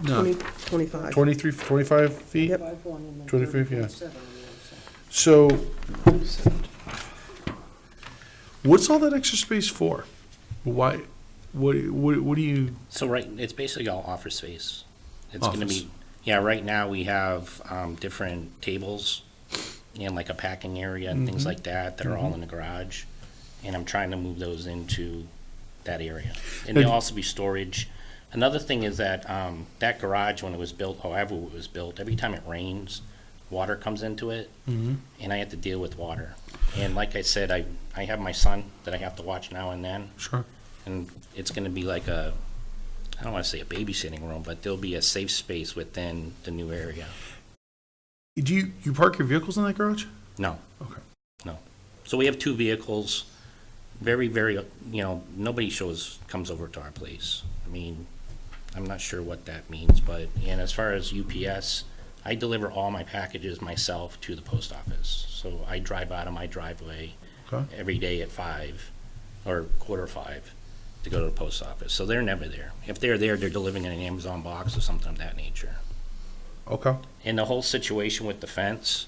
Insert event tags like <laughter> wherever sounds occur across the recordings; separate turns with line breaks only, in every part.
No,
20, 25.
23, 25 feet?
Yep.
Five one and then
25, yeah.
7 on the other side.
So, what's all that extra space for? Why, what, what, what do you,
So right, it's basically all office space. It's gonna
Office.
be, yeah, right now we have, um, different tables and like a packing area and things like that that are all in the garage. And I'm trying to move those into that area. And there'll also be storage. Another thing is that, um, that garage, when it was built, however it was built, every time it rains, water comes into it. And I have to deal with water. And like I said, I, I have my son that I have to watch now and then
sure,
and it's going to be like a I don't want to say a babysitting room, but there'll be a safe space within the new area.
do you, you park your vehicles in that garage?
No,
Okay.
no. So we have two vehicles. Very, very, you know, nobody shows comes over to our place. I mean, I'm not sure what that means, but and as far as UPS, I deliver all my packages myself to the post office. So I drive out of my driveway
Okay.
every day at five or quarter five to go to the post office. So they're never there. If they're there, they're delivering in an Amazon box or something of that nature.
Okay,
And the whole situation with the fence,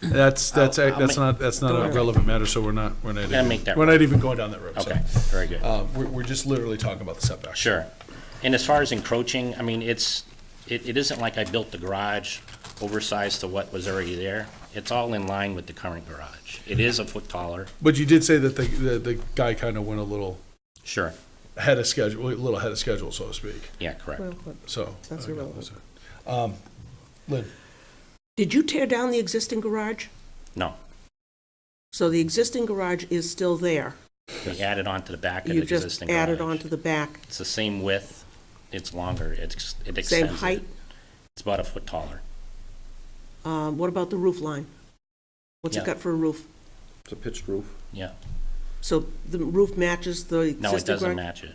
that's, that's,
I'll- I'll
that's
make-
not, that's not a relevant matter, so we're not, we're not.
Gotta make that
We're not even going down that road, so.
okay, very good.
Uh, we're, we're just literally talking about the setback.
Sure. And as far as encroaching, I mean, it's, it, it isn't like I built the garage oversized to what was already there. It's all in line with the current garage. It is a foot taller,
But you did say that the, the, the guy kind of went a little
sure.
ahead of schedule, a little ahead of schedule, so to speak,
Yeah, correct.
Well, but
so.
That's
okay,
irrelevant.
so- Um, Lynn,
Did you tear down the existing garage?
No,
So the existing garage is still there?
we added on to the back of the
You just
existing garage.
added on to the back,
It's the same width, it's longer, it's, it extends.
same
it.
height?
It's about a foot taller.
Um, What about the roof line? What's it
Yeah.
got for a roof?
It's a pitched roof.
Yeah.
So the roof matches the existing garage?
No, it doesn't match it.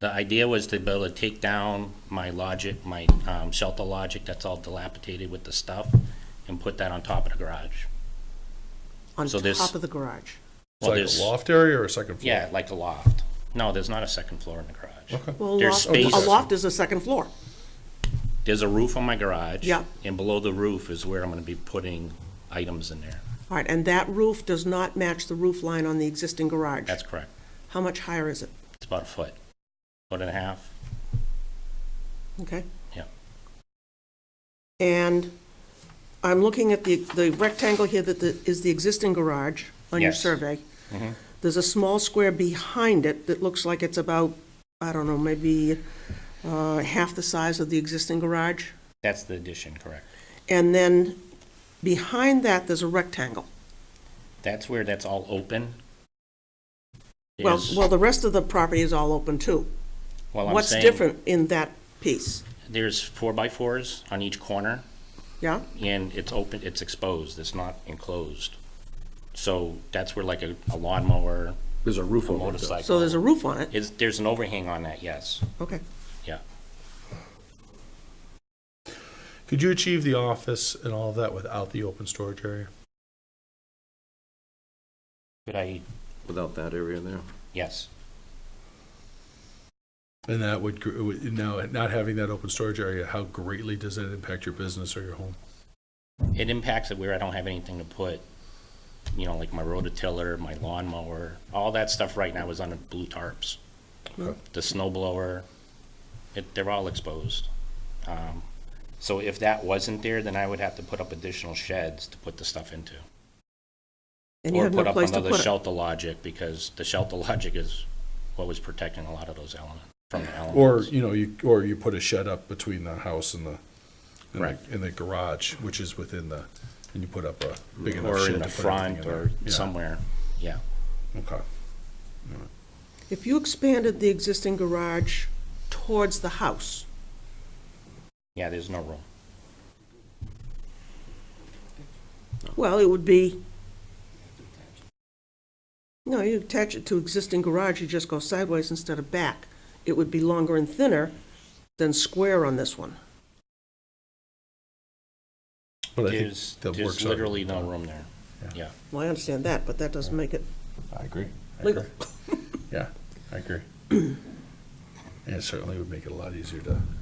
The idea was to be able to take down my logic, my um, shelter logic that's all dilapidated with the stuff and put that on top of the garage.
On
So there's-
top of the garage?
Well,
it's
there's
like a loft area or a second floor?
Yeah, like a loft. No, there's not a second floor in the garage.
Okay.
Well, a
There's
loft,
space.
a loft is a second floor.
There's a roof on my garage.
Yeah.
And below the roof is where I'm gonna be putting items in there.
All right, and that roof does not match the roof line on the existing garage?
That's correct.
How much higher is it?
It's about a foot, foot and a half.
Okay?
Yeah.
And I'm looking at the, the rectangle here that the- is the existing garage on your
Yes.
survey.
Mhm.
There's a small square behind it that looks like it's about, I don't know, maybe uh, half the size of the existing garage.
That's the addition, correct.
And then behind that, there's a rectangle.
That's where that's all open.
Well,
There's-
well, the rest of the property is all open too.
well, I'm
What's
saying
different in that piece?
There's four by fours on each corner.
Yeah?
and it's open, it's exposed, it's not enclosed. So that's where like a a lawnmower,
There's a
a
Oh
roof over it. though.
motorcycle.
So there's a roof on it?
Is, there's an overhang on that, yes,
Okay.
yeah.
Could you achieve the office and all of that without the open storage area?
Could I,
Without that area there.
yes,
And that would, gr- would- now, not having that open storage area, how greatly does that impact your business or your home?
it impacts it where I don't have anything to put, you know, like my rototiller, my lawnmower, all that stuff right now is on the blue tarps. The snow blower, it, they're all exposed. Um, So if that wasn't there, then I would have to put up additional sheds to put the stuff into.
And you
Or
have no
put up
place to
another
put it?
shelter logic, because the shelter logic is what was protecting a lot of those elements, from the
Or,
elements.
you know, you, or you put a shed up between the house and the, and the,
Right.
and the garage, which is within the, and you put up a big enough
Or
shed
in
to put
the
everything
front,
in
or
there. Yeah,
somewhere, yeah.
Okay.
If you expanded the existing garage towards the house,
Yeah, there's no room.
well, it would be, no, you attach it to existing garage, you just go sideways instead of back. It would be longer and thinner than square on this one.
But I think
There's,
that
there's
works out.
literally no room there, yeah.
Well, I understand that, but that doesn't make it
I agree. I
legal.
<clears throat>
agree. Yeah, I agree. And it certainly would make it a lot easier to